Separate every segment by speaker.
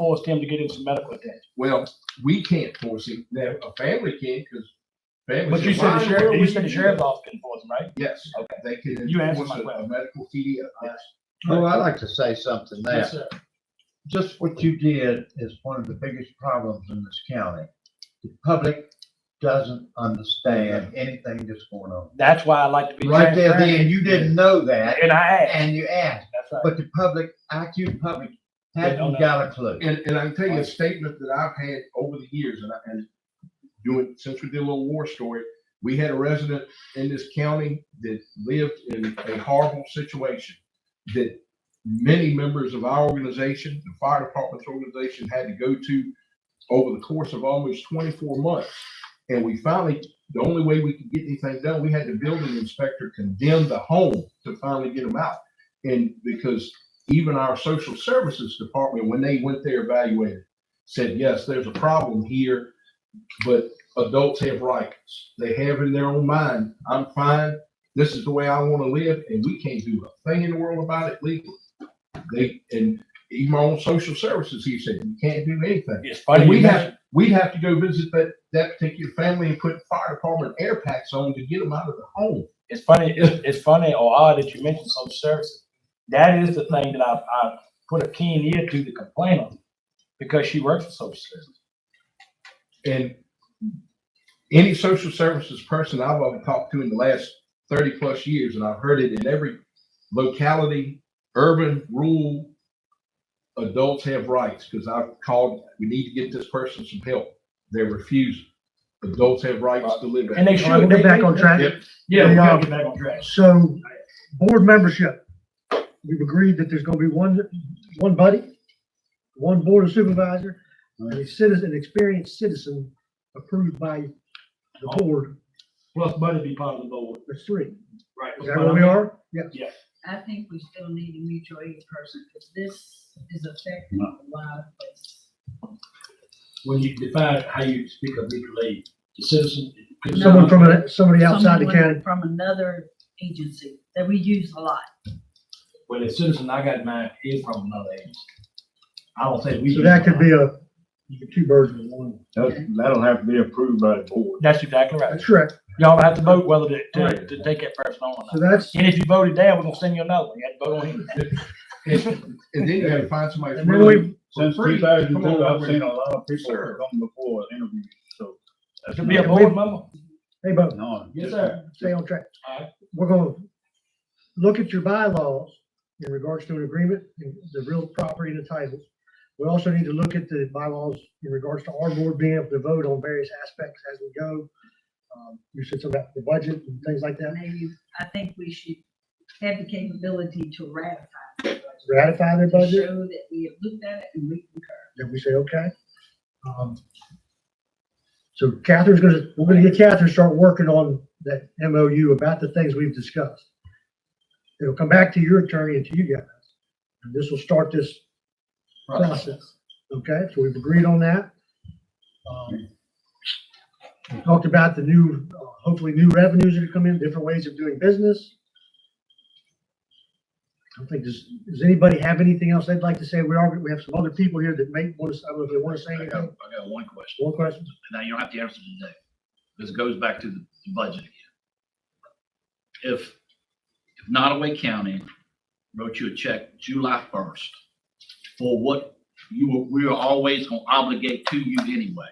Speaker 1: forced him to get into medical attention.
Speaker 2: Well, we can't force him. Now, a family can, because family.
Speaker 1: But you said the
Speaker 2: "Why in
Speaker 1: sheriff,
Speaker 2: world
Speaker 1: you
Speaker 2: would
Speaker 1: said the
Speaker 2: do
Speaker 1: sheriff's office can force him, right?
Speaker 2: that?" Yes, they can.
Speaker 1: You answered
Speaker 2: enforce
Speaker 1: my
Speaker 2: a- A
Speaker 1: question.
Speaker 2: medical TDO, yes.
Speaker 3: Oh, I'd like to say something there.
Speaker 1: sir.
Speaker 3: Just what you did is one of the biggest problems in this county. The public doesn't understand anything that's going on.
Speaker 1: That's why I like to be
Speaker 3: Right there,
Speaker 1: transparent.
Speaker 3: then, you didn't know that,
Speaker 1: And I asked,
Speaker 3: and you asked,
Speaker 1: that's right.
Speaker 3: but the public, IQ public,
Speaker 1: They don't
Speaker 3: hasn't got a clue.
Speaker 2: And, and I can tell you a statement that I've had over the years and I, and doing, since we did a little war story, we had a resident in this county that lived in a horrible situation that many members of our organization, the fire department's organization had to go to over the course of almost twenty-four months. And we finally, the only way we could get anything done, we had the building inspector condemn the home to finally get them out. And because even our social services department, when they went there evaluated, said, yes, there's a problem here, but adults have rights. They have in their own mind, I'm fine, this is the way I want to live, and we can't do a thing in the world about it legally. They, and even our own social services, he said, you can't do anything.
Speaker 1: It's
Speaker 2: And
Speaker 1: funny,
Speaker 2: we
Speaker 1: you
Speaker 2: have,
Speaker 1: mentioned,
Speaker 2: we'd have to go visit that, that particular family and put fire department air packs on to get them out of the home.
Speaker 1: it's funny, it's, it's funny or odd that you mentioned social services. That is the thing that I, I put a keen ear to the complainant because she works for social services.
Speaker 2: And any social services person I've ever talked to in the last thirty plus years, and I've heard it in every locality, urban, rural, adults have rights, because I've called, we need to get this person some help. They're refusing. Adults have rights to live.
Speaker 1: And they
Speaker 4: All right,
Speaker 1: should.
Speaker 4: we'll get back on track.
Speaker 2: Yep.
Speaker 1: Yeah, we gotta
Speaker 4: Yeah.
Speaker 1: get back on track.
Speaker 4: So, board membership, we've agreed that there's gonna be one, one buddy, one board of supervisor, and a citizen, an experienced citizen approved by the board,
Speaker 1: Plus Buddy be part of the board.
Speaker 4: that's three.
Speaker 1: Right.
Speaker 4: Is that where we are? Yeah.
Speaker 5: I think we still need a mutual aid person, because this is affecting a lot of places.
Speaker 1: When you define how you speak of mutual aid, the citizen.
Speaker 4: Someone from, a- somebody outside the
Speaker 5: Someone
Speaker 4: county.
Speaker 5: From another agency that we use a lot.
Speaker 1: Well, the citizen I got mine is from another agency. I don't think we.
Speaker 4: So that could be a, two birds with one.
Speaker 5: That-
Speaker 3: That'll have to be approved by the board.
Speaker 1: That's exactly right.
Speaker 4: That's correct.
Speaker 1: Y'all have to vote whether to, to,
Speaker 4: Right.
Speaker 1: to take that person on or
Speaker 4: So
Speaker 1: not.
Speaker 4: that's,
Speaker 1: And if you voted down, we're gonna send you another one. You had to vote on him.
Speaker 2: And and then you gotta find somebody.
Speaker 4: and then we,
Speaker 2: for
Speaker 6: Since
Speaker 2: free.
Speaker 6: two
Speaker 2: Come
Speaker 6: thousand
Speaker 2: on,
Speaker 6: two, I've
Speaker 2: we're-
Speaker 6: seen a lot of people
Speaker 2: Sure.
Speaker 6: come before and interview, so. that's
Speaker 1: To be a
Speaker 6: not-
Speaker 1: board member?
Speaker 4: hey, Bo,
Speaker 6: No.
Speaker 1: Yes,
Speaker 6: just-
Speaker 1: sir.
Speaker 4: stay on track.
Speaker 1: Alright.
Speaker 4: We're gonna look at your bylaws in regards to an agreement, and the real property and the titles. We also need to look at the bylaws in regards to our board being able to vote on various aspects as we go. Um, You said something about the budget and things like that.
Speaker 5: Maybe, I think we should have the capability to ratify. the budget,
Speaker 4: Ratify their
Speaker 5: To
Speaker 4: budget,
Speaker 5: show that we have looked at it and we concur.
Speaker 4: then we say, okay. Um, So Catherine's gonna, we're gonna get Catherine to start working on that MOU about the things we've discussed. It'll come back to your attorney and to you guys. And this will start this process. Okay, so we've agreed on that. Um, We talked about the new, uh, hopefully new revenues that are coming in, different ways of doing business. I don't think, does, does anybody have anything else they'd like to say? We are, we have some other people here that may want to, I don't know if they want to say
Speaker 7: I got, I
Speaker 4: anything.
Speaker 7: got one question.
Speaker 4: One question?
Speaker 7: Now, you don't have to answer today. This goes back to the the budget again. If, if Nottaway County wrote you a check July first for what you were, we were always gonna obligate to you anyway,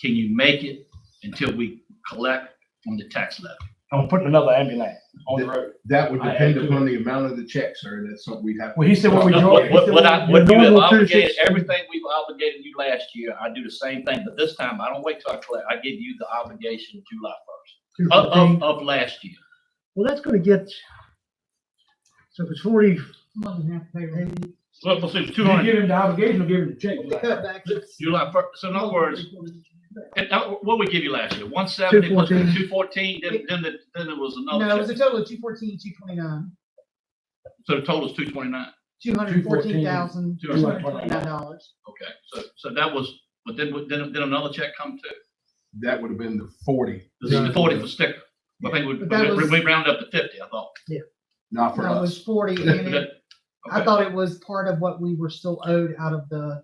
Speaker 7: can you make it until we collect from the tax levy?
Speaker 1: I'm putting another ambulance on the
Speaker 2: That-
Speaker 1: road.
Speaker 2: That would
Speaker 1: I- I
Speaker 2: depend
Speaker 1: do.
Speaker 2: upon the amount of the check, sir. That's something we'd have. to-
Speaker 1: Well, he said what we draw.
Speaker 7: What,
Speaker 1: he said
Speaker 7: what, what I,
Speaker 1: we-
Speaker 7: what you have
Speaker 4: Normal two to
Speaker 7: obligated,
Speaker 4: six.
Speaker 7: everything we've obligated you last year, I do the same thing, but this time I don't wait till I collect. I give you the obligation July first.
Speaker 4: Two
Speaker 7: Of,
Speaker 4: fifteen.
Speaker 7: of, of last year.
Speaker 4: Well, that's gonna get, so if it's forty,
Speaker 7: Well, so it's two
Speaker 1: You
Speaker 7: hundred,
Speaker 1: give him the obligation, you give him the check. You're like,
Speaker 7: July first, so in other words, and, uh, what we give you last year, one seventy, plus
Speaker 4: 214.
Speaker 7: two fourteen, then, then, the- then there was
Speaker 8: No, it
Speaker 7: another
Speaker 8: was a
Speaker 7: check.
Speaker 8: total of two fourteen, two twenty-nine,
Speaker 7: So the total is two twenty-nine,
Speaker 8: two hundred fourteen thousand, two hundred twenty-nine dollars.
Speaker 7: okay, so, so that was, but then, then, then another check come too.
Speaker 2: That would have been the forty,
Speaker 7: This is the forty for sticker. I think we,
Speaker 8: But that
Speaker 7: we
Speaker 8: was-
Speaker 7: we rounded up to fifty, I thought.
Speaker 2: not for
Speaker 8: That
Speaker 2: us.
Speaker 8: was forty, and it-
Speaker 7: That-
Speaker 8: I
Speaker 7: okay.
Speaker 8: thought it was part of what we were still owed out of the